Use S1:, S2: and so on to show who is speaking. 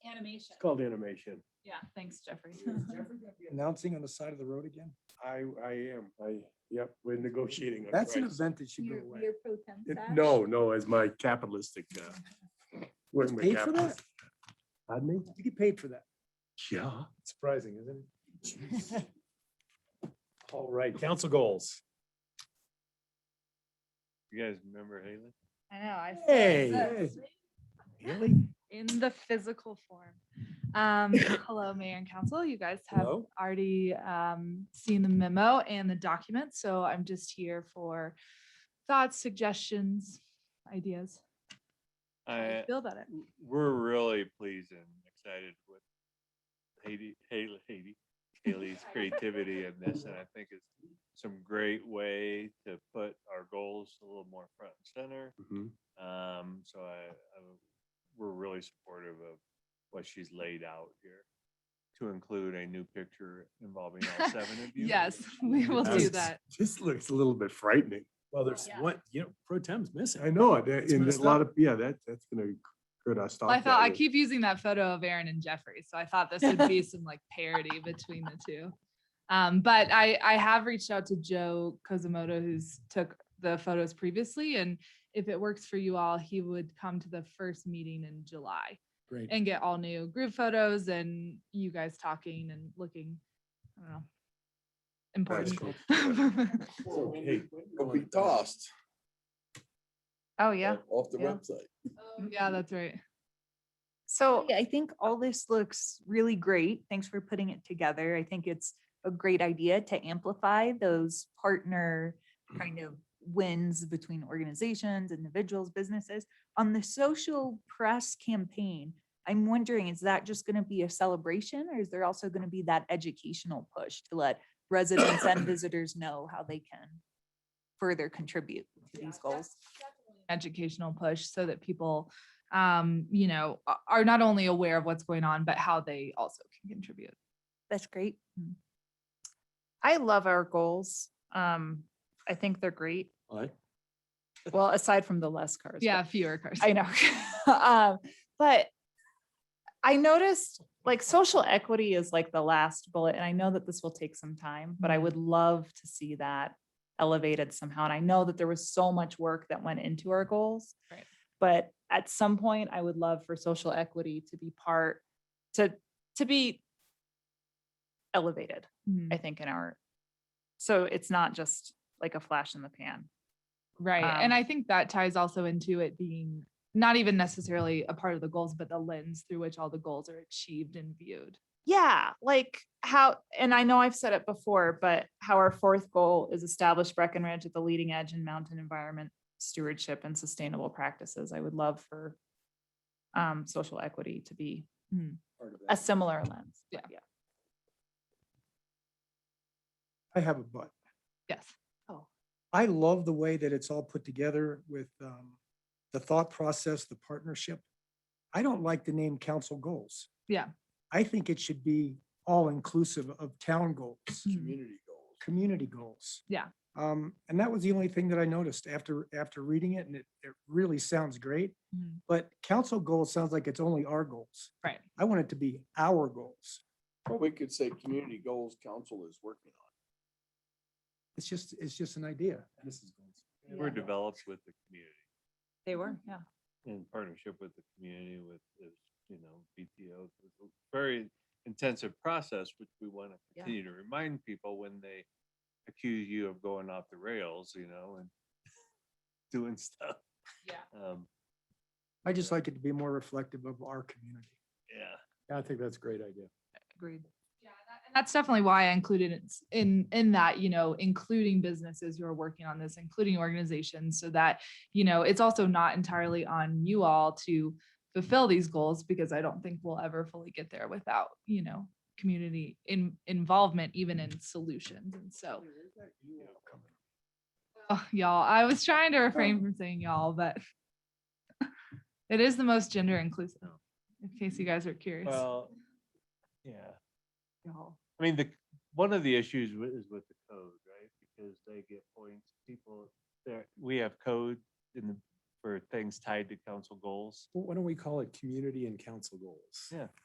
S1: animation.
S2: It's called animation.
S1: Yeah, thanks, Jeffrey.
S3: Announcing on the side of the road again?
S2: I, I am, I, yep, we're negotiating. on
S3: That's an
S2: price.
S3: event that should go
S4: Your,
S3: away.
S4: your pro temp
S2: It-
S4: staff?
S2: No, no, as my capitalistic, uh. working with
S3: Paid for that?
S2: capitalists. Pardon me?
S3: You get paid for that.
S2: Yeah.
S3: Surprising, isn't it?
S2: All right, council goals.
S5: You guys remember Haley?
S6: I know, I. saw
S2: Hey.
S6: that
S3: Really?
S6: In the physical form. Um, hello, Mayor and Council. You guys have
S3: Hello?
S6: already um seen the memo and the document, so I'm just here for thoughts, suggestions, ideas. how you
S5: I,
S6: Feel about it.
S5: we're really pleased and excited with Haiti, Haley, Haiti, Haley's creativity in this, and I think it's some great way to put our goals a little more front and center.
S2: Mhm.
S5: Um, so I, I- we're really supportive of what she's laid out here to include a new picture involving all seven of you.
S6: Yes, we will do
S2: That's-
S6: that.
S2: This looks a little bit frightening.
S3: Well, there's
S1: Yeah.
S3: one, you know, pro tem's missing.
S2: I know, it,
S3: It's
S2: and there's a
S3: messed
S2: lot
S3: up.
S2: of, yeah, that, that's gonna hurt our stock.
S6: Well, I thought, I
S2: value.
S6: keep using that photo of Aaron and Jeffrey, so I thought this would be some like parody between the two. Um, but I, I have reached out to Joe Kozumoto, who's took the photos previously, and if it works for you all, he would come to the first meeting in July
S3: Great.
S6: and get all new group photos and you guys talking and looking, I don't know. Important.
S2: cool.
S3: Okay.
S7: It'll be tossed
S6: Oh, yeah.
S7: off- off the
S6: Yeah.
S7: website.
S6: Yeah, that's right.
S8: So I think all this looks really great. Thanks for putting it together. I think it's a great idea to amplify those partner
S6: Mm-hmm.
S8: kind of wins between organizations, individuals, businesses. On the social press campaign, I'm wondering, is that just going to be a celebration or is there also going to be that educational push to let residents and visitors know how they can further contribute to these goals?
S6: educational push so that people um you know a- are not only aware of what's going on but how they also can contribute
S8: That's great.
S9: Mm. I love our goals. Um, I think they're great.
S3: What?
S9: Well, aside from the less cars. but-
S6: yeah fewer cars
S9: I know. Um, but I noticed like social equity is like the last bullet, and I know that this will take some time, but I would love to see that elevated somehow. And I know that there was so much work that went into our goals.
S6: Right.
S9: But at some point, I would love for social equity to be part, to, to be elevated.
S6: Mm,
S9: I think in our, so it's not just like a flash in the pan.
S6: right and
S9: um,
S6: i think that ties also into it being not even necessarily a part of the goals but the lens through which all the goals are achieved and viewed
S9: Yeah, like how, and I know I've said it before, but how our fourth goal is establish Breckenridge at the leading edge in mountain environment stewardship and sustainable practices. I would love for um, social equity to be hmm,
S3: Part of that.
S9: a similar lens.
S6: Yeah.
S9: Yeah.
S3: I have a but.
S6: yes
S3: I love the way that it's all put together with um, the thought process, the partnership. I don't like the name council goals.
S6: Yeah.
S3: I think it should be all inclusive of town goals,
S7: Community goals.
S3: community goals.
S6: Mm-hmm. Yeah.
S3: Um, and that was the only thing that I noticed after, after reading it and it, it really sounds great.
S6: Mm-hmm.
S3: But council goals sounds like it's only our goals.
S6: right
S3: I want it to be our goals.
S7: Well, we could say community goals council is working on.
S3: It's just, it's just an idea.
S5: They We're developed with the community.
S8: They were, yeah.
S5: in partnership with the community, with, the, you know, BTO, it was a very intensive process, which we want to
S8: Yeah.
S5: continue to remind people when they accuse you of going off the rails, you know, and doing stuff.
S1: Yeah.
S5: Um,
S3: I just like it to be more reflective of our community.
S5: yeah.
S2: I think that's a great idea.
S8: Agreed.
S6: Yeah, that- and that's definitely why I included it s- in, in that, you know, including businesses who are working on this, including organizations, so that, you know, it's also not entirely on you all to fulfill these goals, because I don't think we'll ever fully get there without, you know, community in, involvement, even in solutions, and so. Oh, y'all, I was trying to refrain from saying y'all, but it is the most gender inclusive, in case you guys are curious.
S5: Well, yeah. I mean, the, one of the issues wi- is with the code, right? Because they get points, people, there, we have code in the, for things tied to council goals.
S2: Why don't we call it community and council goals?
S5: Yeah.